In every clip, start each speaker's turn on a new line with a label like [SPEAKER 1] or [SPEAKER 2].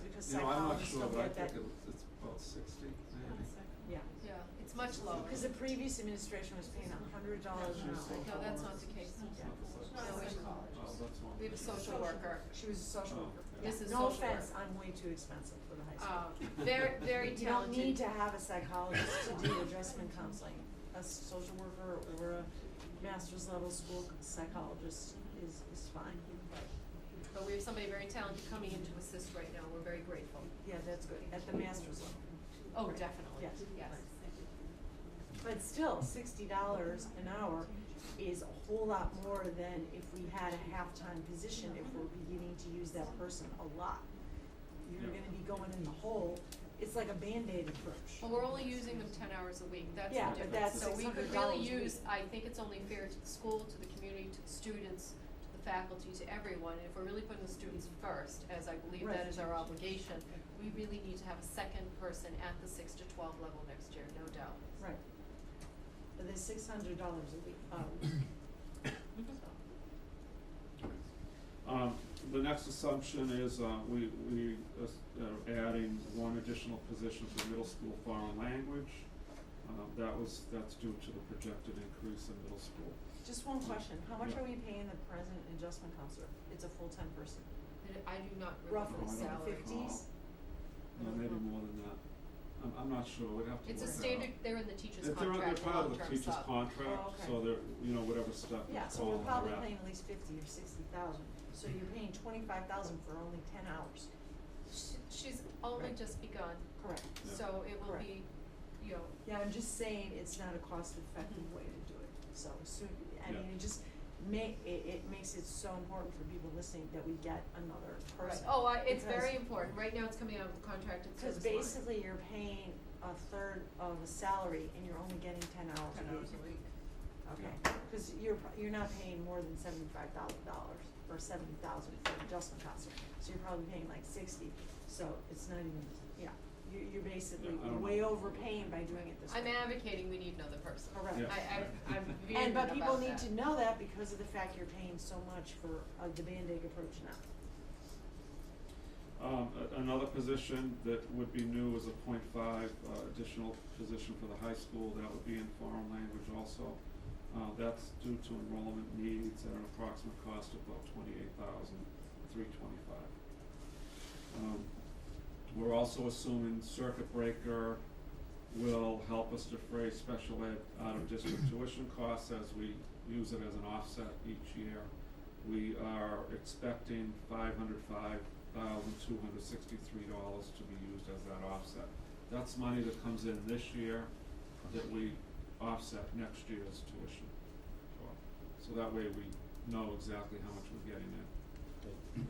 [SPEAKER 1] You know, I'm not
[SPEAKER 2] psychologist
[SPEAKER 1] sure,
[SPEAKER 2] will
[SPEAKER 1] but I
[SPEAKER 2] get that.
[SPEAKER 1] think it's, it's about sixty, maybe.
[SPEAKER 2] Yeah,
[SPEAKER 3] Yeah, it's much lower.
[SPEAKER 2] because the previous administration was paying a hundred dollars an hour.
[SPEAKER 3] No, that's not the case.
[SPEAKER 1] It's not the same.
[SPEAKER 3] No, we-
[SPEAKER 1] Oh, that's one.
[SPEAKER 3] We have a social worker.
[SPEAKER 2] She was a social worker.
[SPEAKER 1] Oh,
[SPEAKER 3] yeah. This is
[SPEAKER 2] No
[SPEAKER 3] social
[SPEAKER 2] offense,
[SPEAKER 3] work.
[SPEAKER 2] I'm way too expensive for the high
[SPEAKER 3] Uh,
[SPEAKER 2] school.
[SPEAKER 3] very, very talented.
[SPEAKER 2] You don't need to have a psychologist to do adjustment counseling. A social worker or a master's level school psychologist is, is fine.
[SPEAKER 3] But we have somebody very talented coming in to assist right now. We're very grateful.
[SPEAKER 2] Yeah, that's good, at the master's level.
[SPEAKER 3] Oh, definitely,
[SPEAKER 2] Yes.
[SPEAKER 3] yes.
[SPEAKER 2] But still, sixty dollars an hour is a whole lot more than if we had a half-time position, if we're beginning to use that person a lot. You're
[SPEAKER 1] Yeah.
[SPEAKER 2] gonna be going in the hole, it's like a Band-Aid approach.
[SPEAKER 3] Well, we're only using them ten hours a week. That's
[SPEAKER 2] Yeah,
[SPEAKER 3] the
[SPEAKER 2] but
[SPEAKER 3] difference.
[SPEAKER 1] that's
[SPEAKER 3] So we could
[SPEAKER 2] $600 a
[SPEAKER 3] really
[SPEAKER 2] week.
[SPEAKER 3] use, I think it's only fair to the school, to the community, to the students, to the faculty, to everyone. And if we're really putting the students first, as I believe that
[SPEAKER 2] Right.
[SPEAKER 3] is our obligation, we really need to have a second person at the six to twelve level next year, no doubt.
[SPEAKER 2] Right. But there's six hundred dollars a week, uh,
[SPEAKER 1] Um, the next assumption is, uh, we, we uh, are adding one additional position for middle school foreign language. Um, that was, that's due to the projected increase in middle school.
[SPEAKER 2] just one question, how much
[SPEAKER 1] Yeah.
[SPEAKER 2] are we paying the present adjustment counselor? It's a full-time person,
[SPEAKER 3] And I do not remember
[SPEAKER 2] roughly,
[SPEAKER 3] the
[SPEAKER 1] I don't
[SPEAKER 3] salary.
[SPEAKER 2] fifties?
[SPEAKER 1] No, Uh, maybe more than that. I'm, I'm not sure, we'd have to work
[SPEAKER 3] It's a
[SPEAKER 1] that out.
[SPEAKER 3] standard, they're in the teacher's
[SPEAKER 1] If they're, they're
[SPEAKER 3] contract,
[SPEAKER 1] part of
[SPEAKER 3] long-term
[SPEAKER 1] the
[SPEAKER 3] sub.
[SPEAKER 1] teacher's contract,
[SPEAKER 2] Oh,
[SPEAKER 1] so
[SPEAKER 2] okay.
[SPEAKER 1] they're, you know, whatever step we
[SPEAKER 2] Yeah, so
[SPEAKER 1] call
[SPEAKER 2] we're
[SPEAKER 1] them,
[SPEAKER 2] probably
[SPEAKER 1] they're at.
[SPEAKER 2] paying at least fifty or sixty thousand, so you're paying twenty-five thousand for only ten hours.
[SPEAKER 3] She- She's only
[SPEAKER 2] Right.
[SPEAKER 3] just begun,
[SPEAKER 2] Correct.
[SPEAKER 1] Yeah.
[SPEAKER 3] so it will
[SPEAKER 2] Correct.
[SPEAKER 3] be, you know,
[SPEAKER 2] Yeah, I'm just saying it's not a cost-effective way to do it, so soon, I mean,
[SPEAKER 1] Yeah.
[SPEAKER 2] it just ma- it, it makes it so important for people listening that we get another
[SPEAKER 3] right,
[SPEAKER 2] person.
[SPEAKER 3] oh, I,
[SPEAKER 2] because-
[SPEAKER 3] it's very important, right now it's coming out of the contract and
[SPEAKER 2] Cause
[SPEAKER 3] service line.
[SPEAKER 2] basically you're paying a third of a salary and you're only getting ten hours a
[SPEAKER 3] Ten hours a
[SPEAKER 2] week.
[SPEAKER 3] week.
[SPEAKER 2] Okay, cause you're, pro- you're not paying more than seventy-five thousand dollars or seventy thousand for adjustment costs, so you're probably paying like sixty, so it's not even, yeah. You, you're basically
[SPEAKER 1] I don't
[SPEAKER 2] way
[SPEAKER 1] know.
[SPEAKER 2] overpaying by doing it this way.
[SPEAKER 3] I'm advocating we need another person.
[SPEAKER 2] Correct.
[SPEAKER 1] Yeah.
[SPEAKER 3] I, I, I'm
[SPEAKER 2] And
[SPEAKER 3] vehement about that.
[SPEAKER 2] but people need to know that because of the fact you're paying so much for uh the Band-Aid approach now.
[SPEAKER 1] Um, a- another position that would be new is a point five, uh, additional position for the high school, that would be in foreign language also. Uh, that's due to enrollment needs at an approximate cost of about twenty-eight thousand, three twenty-five. Um, we're also assuming circuit breaker will help us defray special ed out-of-district tuition costs as we use it as an offset each year. We are expecting five hundred five thousand two hundred sixty-three dollars to be used as that offset. That's money that comes in this year that we offset next year's tuition for. So that way we know exactly how much we're getting in.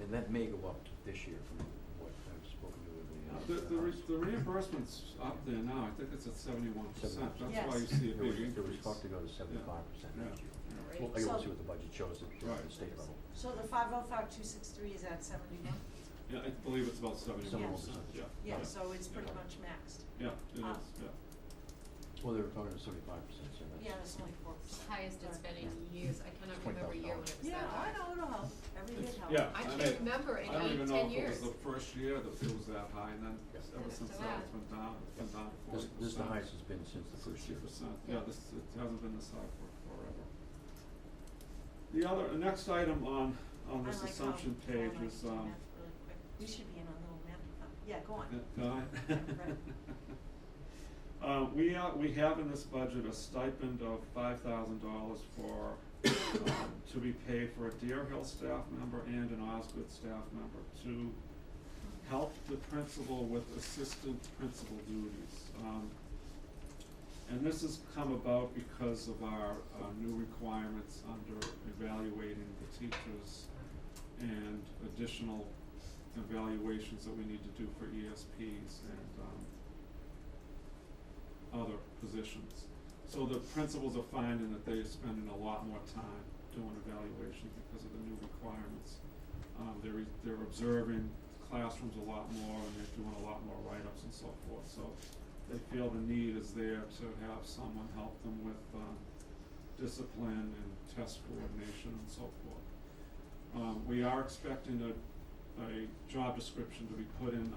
[SPEAKER 4] And that may go up this year from what I've spoken
[SPEAKER 1] Uh,
[SPEAKER 4] to
[SPEAKER 1] The,
[SPEAKER 4] with the.
[SPEAKER 1] the re- the reimbursement's up there now, I think it's at seventy-one percent, that's why you
[SPEAKER 2] Yes.
[SPEAKER 1] see a
[SPEAKER 4] It was,
[SPEAKER 1] big increase.
[SPEAKER 4] it was thought to go to seventy-five percent
[SPEAKER 1] Yeah,
[SPEAKER 4] next year.
[SPEAKER 1] yeah.
[SPEAKER 3] Right.
[SPEAKER 4] I
[SPEAKER 2] So-
[SPEAKER 4] gotta see what the budget shows at
[SPEAKER 1] Right.
[SPEAKER 4] the state level.
[SPEAKER 2] So the five oh five two six three is at seventy-one?
[SPEAKER 1] Yeah, I believe it's about seventy-one percent, yeah.
[SPEAKER 2] Yeah, so it's pretty
[SPEAKER 1] Yeah.
[SPEAKER 2] much maxed.
[SPEAKER 1] Yeah, it is,
[SPEAKER 2] Ah.
[SPEAKER 1] yeah.
[SPEAKER 4] Well, they were talking to seventy-five percent, so that's.
[SPEAKER 2] Yeah, it's only four
[SPEAKER 3] It's
[SPEAKER 2] percent.
[SPEAKER 3] the Highest it's been in years, I cannot
[SPEAKER 4] It's
[SPEAKER 3] remember a year when it was
[SPEAKER 2] Yeah,
[SPEAKER 3] that high.
[SPEAKER 2] I know, it'll help, every
[SPEAKER 1] It's-
[SPEAKER 2] bit helps.
[SPEAKER 1] yeah,
[SPEAKER 3] I
[SPEAKER 1] I
[SPEAKER 3] can't
[SPEAKER 1] mean,
[SPEAKER 3] remember in
[SPEAKER 1] I don't
[SPEAKER 3] eight,
[SPEAKER 1] even know if
[SPEAKER 3] 10
[SPEAKER 1] it was
[SPEAKER 3] years.
[SPEAKER 1] the first year that it was that high, and then
[SPEAKER 4] Yeah.
[SPEAKER 1] ever
[SPEAKER 3] It's
[SPEAKER 1] since
[SPEAKER 3] so
[SPEAKER 1] that,
[SPEAKER 3] bad.
[SPEAKER 1] it's been down, it's been down to
[SPEAKER 4] This,
[SPEAKER 1] forty percent.
[SPEAKER 4] this is the highest it's been since the first
[SPEAKER 1] Sixty
[SPEAKER 4] year.
[SPEAKER 1] percent, yeah, this, it hasn't been this high for forever. The other, the next item on, on this assumption page is,
[SPEAKER 2] um, I like how Paul and I can do math
[SPEAKER 1] um,
[SPEAKER 2] really quick. We should be in a little math club. Yeah, go on.
[SPEAKER 1] No, I-
[SPEAKER 2] Right.
[SPEAKER 1] Uh, we are, we have in this budget a stipend of five thousand dollars for, um, to be paid for a Deer Hill staff member and an Osgood staff member to help the principal with assistant principal duties. Um, and this has come about because of our, uh new requirements under evaluating the teachers and additional evaluations that we need to do for ESPs and, um, other positions. So the principals are finding that they're spending a lot more time doing evaluation because of the new requirements. Um, they're, re- they're observing classrooms a lot more and they're doing a lot more write-ups and so forth, so they feel the need is there to have someone help them with, um, discipline and test coordination and so forth. Um, we are expecting a, a job description to be put in